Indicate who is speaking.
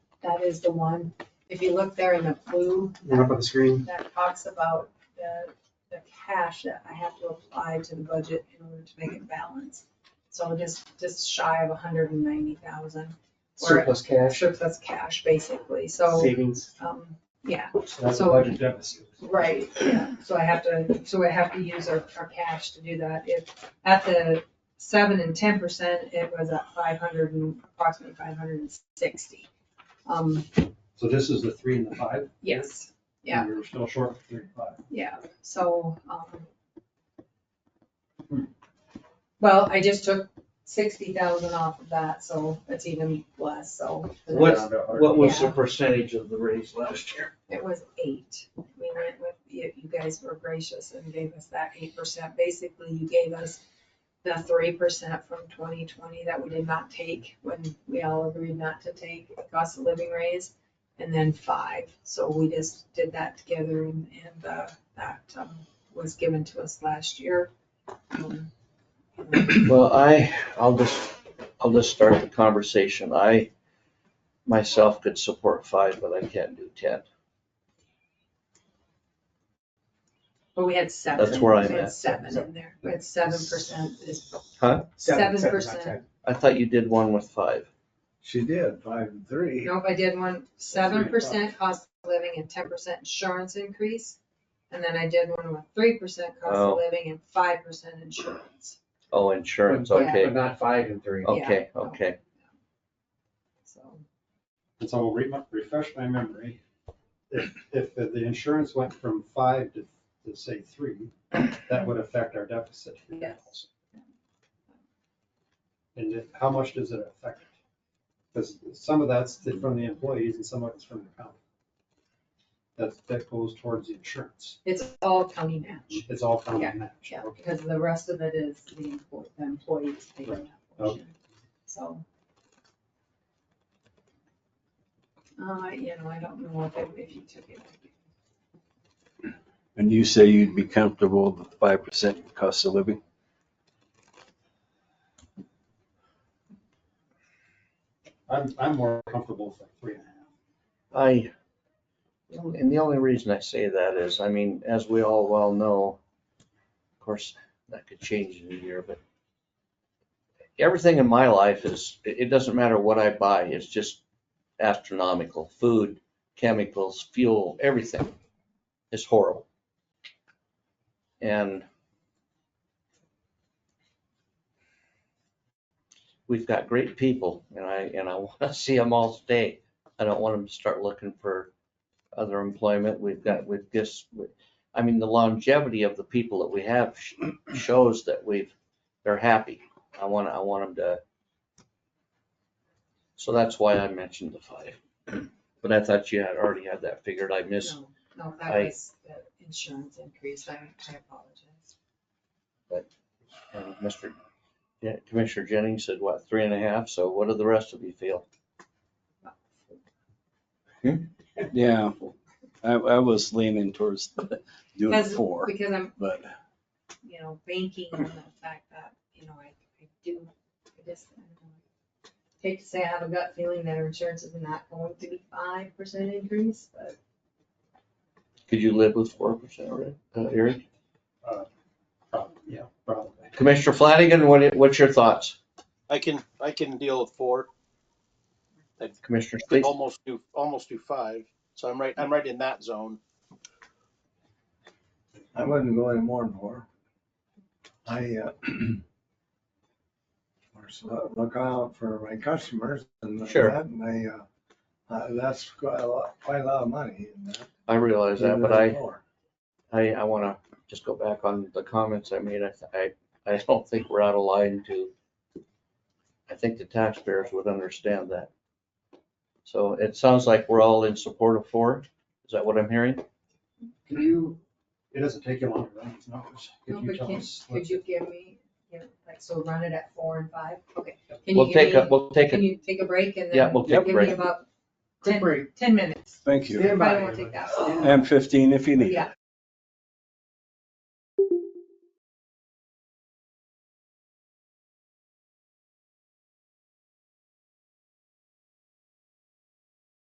Speaker 1: that is the one, if you look there in the blue,
Speaker 2: And up on the screen,
Speaker 1: that talks about the, the cash that I have to apply to the budget in order to make it balance. So just, just shy of hundred and ninety thousand
Speaker 3: surplus cash.
Speaker 1: surplus cash, basically, so,
Speaker 2: savings,
Speaker 1: um, yeah,
Speaker 2: so that's a
Speaker 1: So-
Speaker 2: budget deficit.
Speaker 1: Right, yeah, so I have to, so I have to use our, our cash to do that. If, at the seven and ten percent, it was at five hundred and, approximately five hundred and sixty. Um,
Speaker 4: So this is the three and the five?
Speaker 1: yes, yeah.
Speaker 4: You're still short of three and five.
Speaker 1: yeah, so, um. Well, I just took sixty thousand off of that, so it's even less, so
Speaker 3: What's- What was the
Speaker 1: Yeah.
Speaker 3: percentage of the raise last year?
Speaker 1: it was eight. We went with, you, you guys were gracious and gave us that eight percent. Basically, you gave us the three percent from twenty twenty that we did not take when we all agreed not to take the cost of living raise. And then five, so we just did that together and, and, uh, that, um, was given to us last year. Um, and
Speaker 3: Well, I, I'll just, I'll just start the conversation. I myself could support five, but I can't do ten.
Speaker 1: But we had seven.
Speaker 3: That's where I'm
Speaker 1: We had
Speaker 3: at.
Speaker 1: Seven in there, we had seven percent is,
Speaker 2: Seven,
Speaker 1: Seven
Speaker 2: seven, not
Speaker 1: percent.
Speaker 2: ten.
Speaker 3: I thought you did one with five.
Speaker 5: She did, five and three.
Speaker 1: Nope, I did one, seven percent cost of living and ten percent insurance increase. And then I did one with three percent cost
Speaker 3: Oh.
Speaker 1: of living and five percent insurance.
Speaker 3: Oh, insurance,
Speaker 1: Yeah.
Speaker 3: okay,
Speaker 2: But not five and three.
Speaker 1: Oh.
Speaker 3: okay, okay.
Speaker 1: So,
Speaker 4: And so I'll re- refresh my memory. If, if the insurance went from five to, to say three, that would affect our deficit.
Speaker 1: Yes.
Speaker 4: And if- how much does it affect? Because some of that's the- from the employees and some of it's from the county. That's, that goes towards the insurance.
Speaker 1: it's all county match,
Speaker 4: It's all county
Speaker 1: Yeah,
Speaker 4: match.
Speaker 1: yeah,
Speaker 4: Okay.
Speaker 1: because the rest of it is the employ- the employees paying that portion. So. Uh, you know, I don't know if, it- if you took it.
Speaker 6: And you say you'd be comfortable with five percent cost of living?
Speaker 4: I'm, I'm more comfortable with like three and a half.
Speaker 3: I, and the only reason I say that is, I mean, as we all well know, of course, that could change in a year, but everything in my life is, it it doesn't matter what I buy, it's just astronomical. Food, chemicals, fuel, everything is horrible. And we've got great people and I, and I want to see them all stay. I don't want them to start looking for other employment. We've got, we've just, I mean, the longevity of the people that we have sh- shows that we've, they're happy. I want, I want them to. So that's why I mentioned the five. But I thought you had already had that figured. I missed,
Speaker 1: No, No, that
Speaker 3: I-
Speaker 1: was the insurance increase, I, I apologize.
Speaker 3: and Mr. Uh, Yeah, Commissioner Jennings said, what, three and a half? So what do the rest of you feel?
Speaker 6: Yeah, I, I was leaning towards doing
Speaker 1: Because-
Speaker 6: four,
Speaker 1: Because I'm
Speaker 6: but
Speaker 1: you know, banking on the fact that, you know, I, I do, I just, I don't know. hate to say I have a gut feeling that our insurance is not going to be five percent increase, but
Speaker 3: Could you live with four percent, Uh, Eric?
Speaker 4: Probably, yeah, probably.
Speaker 3: Commissioner Flanagan, what, what's your thoughts?
Speaker 7: I can, I can deal with four,
Speaker 3: Commissioner Speaks?
Speaker 7: almost do, almost do five. So I'm right, I'm right in that zone.
Speaker 5: I wouldn't go any more than four. I, uh, of course, look- look out for my customers and
Speaker 3: Sure.
Speaker 5: that, and I, uh, uh, that's quite a lot, quite a lot of money. and that-
Speaker 3: I realize that, but
Speaker 5: Even
Speaker 3: I,
Speaker 5: at four.
Speaker 3: I, I want to just go back on the comments I made. I, th- I, I don't think we're out of line to, I think the taxpayers would understand that. So it sounds like we're all in support of four. Is that what I'm hearing?
Speaker 4: Can you, it doesn't take you long to run these numbers.
Speaker 1: No,
Speaker 4: Could you
Speaker 1: but
Speaker 4: tell
Speaker 1: can-
Speaker 4: us? what-
Speaker 1: could you give me, you know, like, so run it at four and five? Okay. Can
Speaker 3: We'll
Speaker 1: you
Speaker 3: take a,
Speaker 1: give me,
Speaker 3: we'll take
Speaker 1: can
Speaker 3: a,
Speaker 1: you take a break and then?
Speaker 3: yeah, we'll take a
Speaker 1: Give
Speaker 3: break.
Speaker 1: me about
Speaker 5: Quick
Speaker 1: ten,
Speaker 5: break.
Speaker 1: ten minutes.
Speaker 6: thank you.
Speaker 1: I don't
Speaker 5: Stand by.
Speaker 1: wanna take that.
Speaker 5: Stand by.
Speaker 6: And fifteen if you need.
Speaker 1: Yeah,